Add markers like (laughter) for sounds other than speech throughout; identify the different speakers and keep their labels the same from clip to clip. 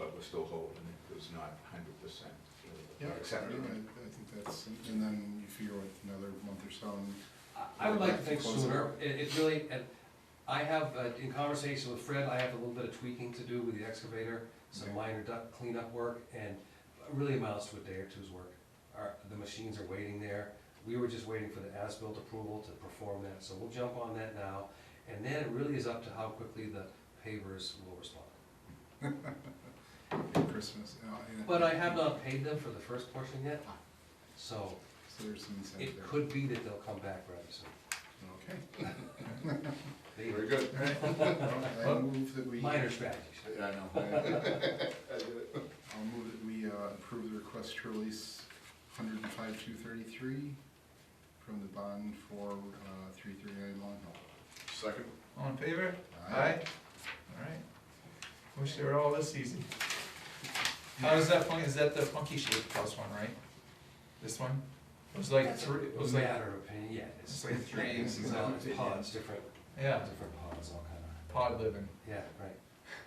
Speaker 1: we're still holding it, it was not hundred percent
Speaker 2: Yeah,
Speaker 1: accepted.
Speaker 2: I, I think that's, and then you figure with another month or so, and
Speaker 3: I- I would like to think sooner, it, it really, and I have, uh, in conversation with Fred, I have a little bit of tweaking to do with the excavator, some minor duct cleanup work, and it really amounts to a day or two's work. Our, the machines are waiting there, we were just waiting for the as-built approval to perform that, so we'll jump on that now, and then it really is up to how quickly the pavers will respond.
Speaker 2: Christmas. uh, yeah.
Speaker 3: But I have not paid them for the first portion yet, so
Speaker 2: So there's some incentive
Speaker 3: it
Speaker 2: there.
Speaker 3: could be that they'll come back rather soon. (laughs)
Speaker 2: Okay.
Speaker 3: They-
Speaker 1: Very good.
Speaker 2: All right. I move that we, uh,
Speaker 3: Minor strategies.
Speaker 1: Yeah, I
Speaker 3: (laughs)
Speaker 1: know. I did it.
Speaker 2: I'll move that we uh, approve the request to release hundred and five, two thirty-three from the bond for uh, three thirty-nine Long Hill.
Speaker 1: Second,
Speaker 4: All in favor?
Speaker 2: Aye.
Speaker 4: All right. Wish they were all this easy. How is that funky, is that the funky shaped plus one, right? This one? It was like three, it was like,
Speaker 3: Matter of opinion, yeah,
Speaker 4: it's
Speaker 3: it's,
Speaker 4: like three,
Speaker 3: it's
Speaker 4: it's all-
Speaker 3: pods, different,
Speaker 4: yeah,
Speaker 3: different pods, all kind of,
Speaker 4: pod living.
Speaker 3: yeah, right,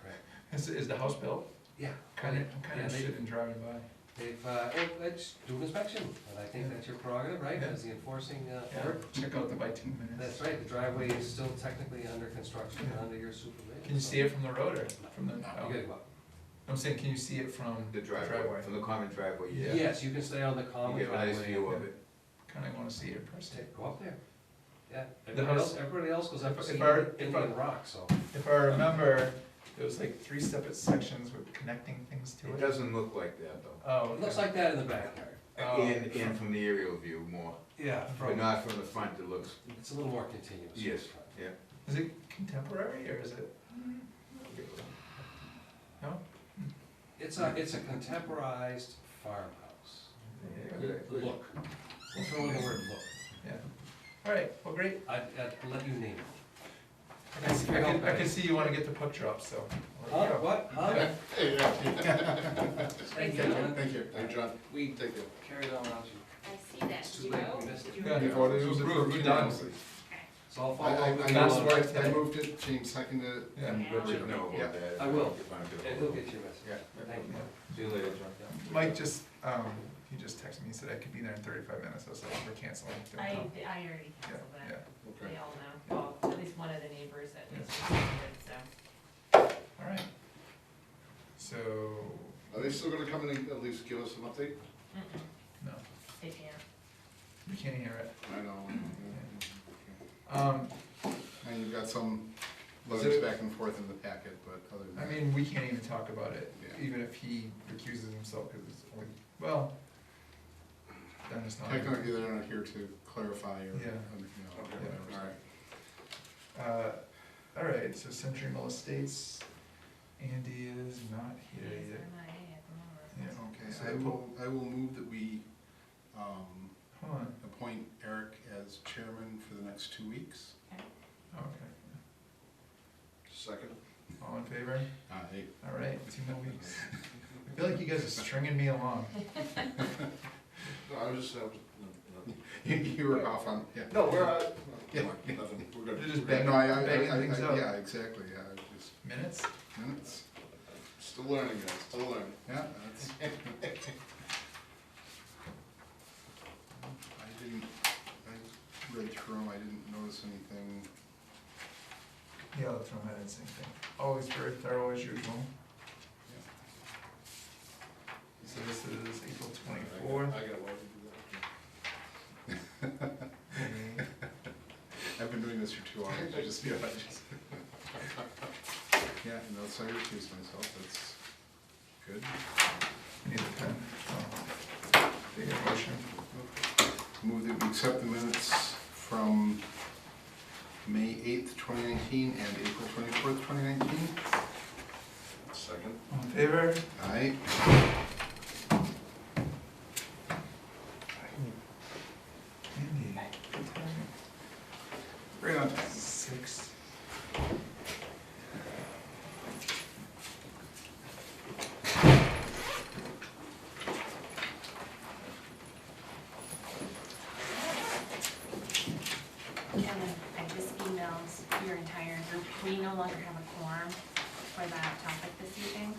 Speaker 3: right,
Speaker 4: Is, is the house built?
Speaker 3: yeah.
Speaker 4: Kind of, I'm kind
Speaker 3: Yeah,
Speaker 4: of
Speaker 3: they-
Speaker 4: interested in driving by.
Speaker 3: They've, uh, oh, let's do an inspection, and I think that's your prerogative, right, as the enforcing, uh,
Speaker 4: Yeah,
Speaker 3: board.
Speaker 4: check out the bitumen. minutes.
Speaker 3: That's right, the driveway is still technically under construction, and under your supervision.
Speaker 4: Can you see it from the road or from the,
Speaker 3: You
Speaker 4: oh.
Speaker 3: gotta go up.
Speaker 4: I'm saying, can you see it from
Speaker 1: the driveway, from the common driveway, yeah.
Speaker 3: Yes, you can stay on the
Speaker 1: You
Speaker 3: common
Speaker 1: get a nice view
Speaker 3: driveway.
Speaker 1: of it.
Speaker 4: Kind of want to see it in person.
Speaker 3: Take- Go up there, yeah,
Speaker 4: The
Speaker 3: everybody
Speaker 4: house-
Speaker 3: else, everybody else goes up to
Speaker 4: If-
Speaker 3: see
Speaker 4: if our- if our-
Speaker 3: Indian Rock, so,
Speaker 4: If I remember, it was like three separate sections with connecting things to
Speaker 1: It
Speaker 4: it.
Speaker 1: doesn't look like that though.
Speaker 4: Oh,
Speaker 3: it
Speaker 4: okay.
Speaker 3: looks like that in the backyard.
Speaker 4: Oh.
Speaker 1: And, and from the aerial view more,
Speaker 3: Yeah.
Speaker 1: but
Speaker 3: From,
Speaker 1: not from the front, it looks,
Speaker 3: it's a little more continuous.
Speaker 1: yes, yeah.
Speaker 4: Is it contemporary or is it? No?
Speaker 3: It's a, it's a contemporized farmhouse.
Speaker 1: Yeah.
Speaker 3: Look, we'll throw in the word look.
Speaker 4: Yeah. All right, well, great.
Speaker 3: I'd, I'd let you name it.
Speaker 4: I can see, I can, I can see you want to get the puck drop, so. I'll let you
Speaker 3: Huh,
Speaker 4: go.
Speaker 3: what, huh? Thank you, Alan.
Speaker 2: Thank you. Thank you, John.
Speaker 3: We
Speaker 2: Thank you.
Speaker 3: carried on without you.
Speaker 5: I see that,
Speaker 3: It's
Speaker 5: did
Speaker 3: too
Speaker 5: you
Speaker 3: late,
Speaker 5: know?
Speaker 3: we missed
Speaker 5: Did
Speaker 3: it.
Speaker 5: you
Speaker 4: Yeah.
Speaker 5: know?
Speaker 2: You've already
Speaker 4: Approved,
Speaker 2: approved
Speaker 4: done.
Speaker 2: unanimously.
Speaker 3: It's all
Speaker 2: I, I,
Speaker 3: followed.
Speaker 2: I moved- I moved it, James seconded it.
Speaker 4: Yeah.
Speaker 1: Richard, no, about that.
Speaker 3: I will.
Speaker 1: If I'm gonna-
Speaker 3: And he'll get your message.
Speaker 1: Yeah.
Speaker 3: Thank you.
Speaker 1: See you later, John.
Speaker 4: Mike just, um, he just texted me, he said I could be there in thirty-five minutes, I was like, we're canceling. Don't
Speaker 5: I,
Speaker 4: come.
Speaker 5: I already
Speaker 4: Yeah,
Speaker 5: canceled
Speaker 4: yeah.
Speaker 5: that,
Speaker 2: Okay.
Speaker 5: they all know, well, at least one of the neighbors at
Speaker 4: Yeah.
Speaker 5: least, canceled it, so.
Speaker 4: All right. So,
Speaker 2: Are they still gonna come in and at least give us an update?
Speaker 5: Mm-mm,
Speaker 4: no,
Speaker 5: They can't.
Speaker 4: we can't hear it.
Speaker 2: I know.
Speaker 4: Um,
Speaker 2: And you've got some letters back and forth in the packet, but other than
Speaker 4: I
Speaker 2: that.
Speaker 4: mean, we can't even talk about it,
Speaker 2: Yeah.
Speaker 4: even if he recuses himself, because it's only, well, then it's not.
Speaker 2: Technically, they're not here to clarify or, you know,
Speaker 4: Yeah.
Speaker 2: whatever. All right.
Speaker 4: Uh, all right, so Century Mill Estates, Andy is not here
Speaker 5: He's
Speaker 4: yet.
Speaker 5: MIA at the moment.
Speaker 4: Yeah, So
Speaker 2: Okay,
Speaker 4: they
Speaker 2: I
Speaker 4: put-
Speaker 2: will, I will move that we, um,
Speaker 4: hold on,
Speaker 2: appoint Eric as chairman for the next two weeks.
Speaker 4: Oh, okay,
Speaker 1: Second.
Speaker 4: all in favor?
Speaker 2: Uh, hey,
Speaker 4: All right, two more weeks. I feel like you guys are stringing me along.
Speaker 1: No, I was just, I was,
Speaker 2: You, (laughs) you were off on, yeah.
Speaker 1: no, we're, uh,
Speaker 2: Yeah.
Speaker 1: nothing, we're
Speaker 4: You're
Speaker 1: good.
Speaker 4: just
Speaker 2: Yeah,
Speaker 4: banging,
Speaker 2: No, I, I,
Speaker 4: banging
Speaker 2: I, I,
Speaker 4: things out.
Speaker 2: yeah, exactly, yeah, I just
Speaker 4: Minutes?
Speaker 2: minutes,
Speaker 1: Still learning, guys, still learning.
Speaker 2: yeah, that's. (laughs) I didn't, I read through them, I didn't notice anything,
Speaker 4: Yeah, I'll throw my head in same thing. Always very thorough as usual. So this is April
Speaker 1: (laughs)
Speaker 4: twenty-fourth.
Speaker 1: I got one.
Speaker 2: I've been doing this for two hours, I just, yeah, I just. (laughs) Yeah, no, so I recuse myself, that's good.
Speaker 4: Need a pen. Oh. Take a motion.
Speaker 2: Move that we accept the minutes from May eighth, twenty nineteen, and April twenty-fourth, twenty nineteen.
Speaker 1: Second.
Speaker 4: All in favor?
Speaker 2: Aye.
Speaker 4: Andy.
Speaker 2: Right on time.
Speaker 4: Six.
Speaker 5: Kevin, I just emailed your entire group, we no longer have a quorum for that topic this evening.